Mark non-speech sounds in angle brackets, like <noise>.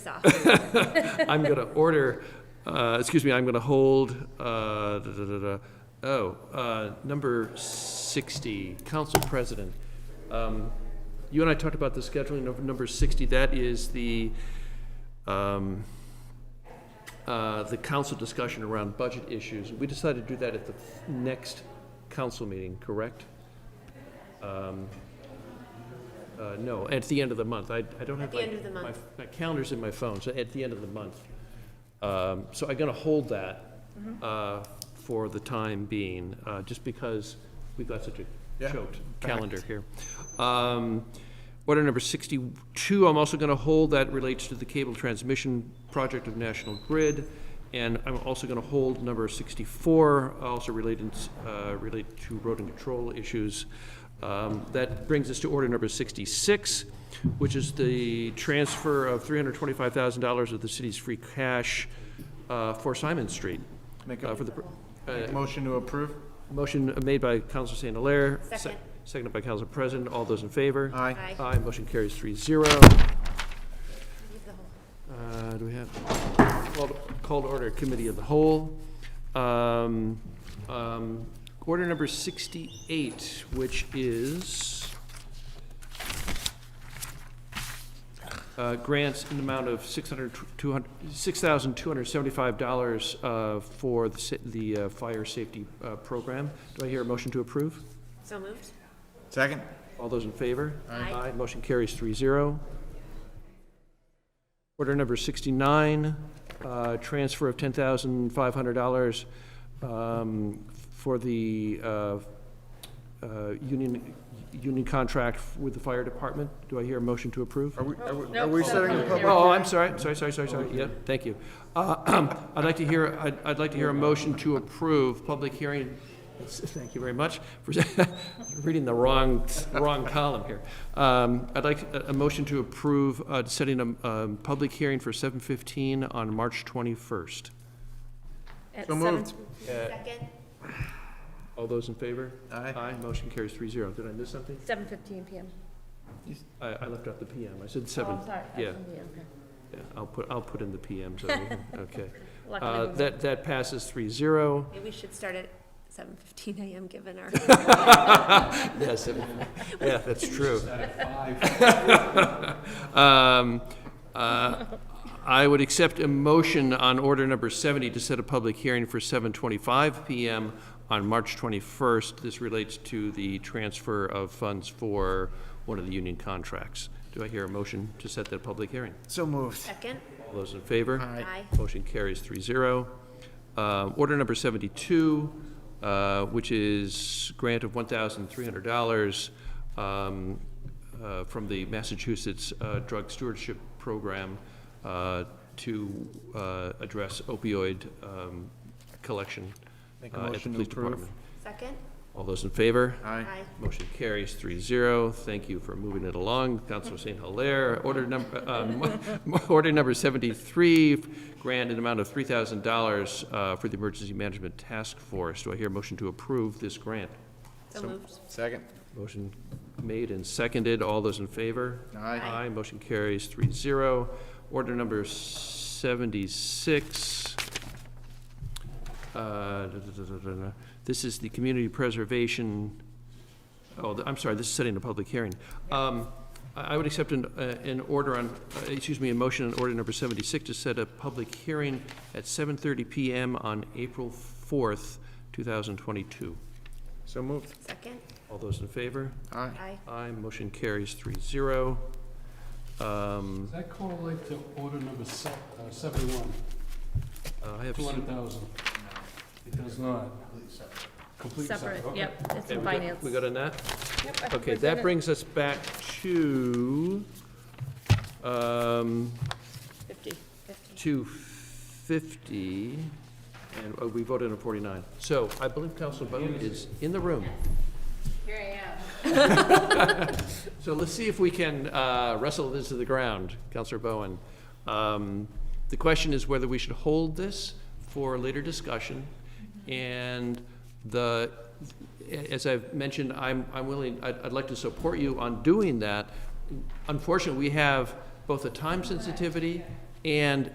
<laughs> off. I'm going to order, uh, excuse me, I'm going to hold, uh, da, da, da, da. oh, uh, number 60, Council President. Um, You and I talked about the scheduling of number 60, that is the, um, uh, the council discussion around budget issues. We decided to do that at the next council meeting, correct? Um, Uh, No, at the end of the month. I I don't have the my... end of the my- month. My calendar's in my phone, so at the end of the month. Um, So I'm going to hold that uh, for the time being, uh, just because we've got such a Yeah. choked calendar here. Um, Order number 62, I'm also going to hold, that relates to the cable transmission project of National Grid. And I'm also going to hold number 64, also related, uh, related to road and control issues. Um, That brings us to order number 66, which is the transfer of $325,000 of the city's free cash uh, for Simon Street. Make uh, a for the pr- uh, motion to approve? Motion made by Counsel St. Hilaire. se- Second. Seconded by Counsel President. All those in favor? Aye. Aye. Aye, motion carries three zero. Leave the whole- Uh, do we have, called, called order committee of the whole. Um, um, order number sixty-eight, which is uh, grants in the amount of six hundred, two hundred, six thousand two hundred seventy-five dollars, uh, for the, si- the uh, fire safety, uh, program. Do I hear a motion to approve? So moved? Second? All those in favor? Aye. Aye, motion carries three zero. Order number sixty-nine, uh, transfer of ten thousand five hundred dollars, um, for the, uh, uh, union, union contract with the fire department. Do I hear a motion to approve? Are we, are we- are we setting a public? Oh, I'm sorry, sorry, sorry, sorry, sorry, yeah, thank you. Uh, <clears throat> I'd like to hear, I'd, I'd like to hear a motion to approve public hearing, thank you very much, for <laughs> reading the wrong, wrong column here. Um, I'd like a, a motion to approve, uh, setting a, um, public hearing for seven fifteen on March twenty-first. At So moved. seven- Second? All those in favor? Aye. motion carries three zero. Did I miss something? Seven fifteen PM. I, I left out the PM, I said seven. Oh, sorry. Yeah, Yeah, okay. yeah, I'll put, I'll put in the <laughs> PM, so, we can- okay. Luckily, Uh, we- that, that passes three zero. Maybe we should start at seven fifteen AM, given <laughs> our, <laughs> Yes, it- yeah, that's true. <laughs> Um, uh, I would accept a motion on order number 70 to set a public hearing for 7:25 PM on March 21st. This relates to the transfer of funds for one of the union contracts. Do I hear a motion to set that public hearing? So moved. second? All those in favor? Aye. Aye. Motion carries three zero. Uh, Order number 72, uh, which is grant of $1,300 um, uh, from the Massachusetts uh, Drug Stewardship Program uh, to uh, address opioid um, collection Make uh, a at the motion to police approve. department. Second? All those in favor? Aye. Aye. Motion carries three zero. Thank you for moving it along. Councilor St. Hilaire, order number, <laughs> um, order number seventy-three, grant an amount of three thousand dollars, uh, for the Emergency Management Task Force. Do I hear a motion to approve this grant? So moved? Second? Motion made and seconded. All those in favor? Aye. Aye, motion carries three zero. Order number seventy-six. Uh, da, da, da, da, da, da. This is the community preservation, oh, th- I'm sorry, this is setting a public hearing. Um, I I would accept an, uh, an order on, uh, excuse me, a motion on order number seventy-six to set a public hearing at seven thirty PM on April fourth, two thousand twenty-two. So moved. Second? All those in favor? Aye. Aye. Aye, motion carries three zero. Um, Does that correlate to order number se- uh, 71, uh, I have, 200,000? It does not. Completely Separate, okay. yep, it's Okay, in we got- finance. we got a Yep, net? I think Okay, we're good. that brings us back to, um, Fifty. Fifteen. two fifty, and oh, we voted on forty-nine. So I believe Council Bowman is in the room. Here I am. <laughs> So let's see if we can uh, wrestle this to the ground, Counselor Bowen. Um, The question is whether we should hold this for later discussion. And the, as I've mentioned, I'm, I'm willing, I'd, I'd like to support you on doing that. Unfortunately, we have both a time sensitivity And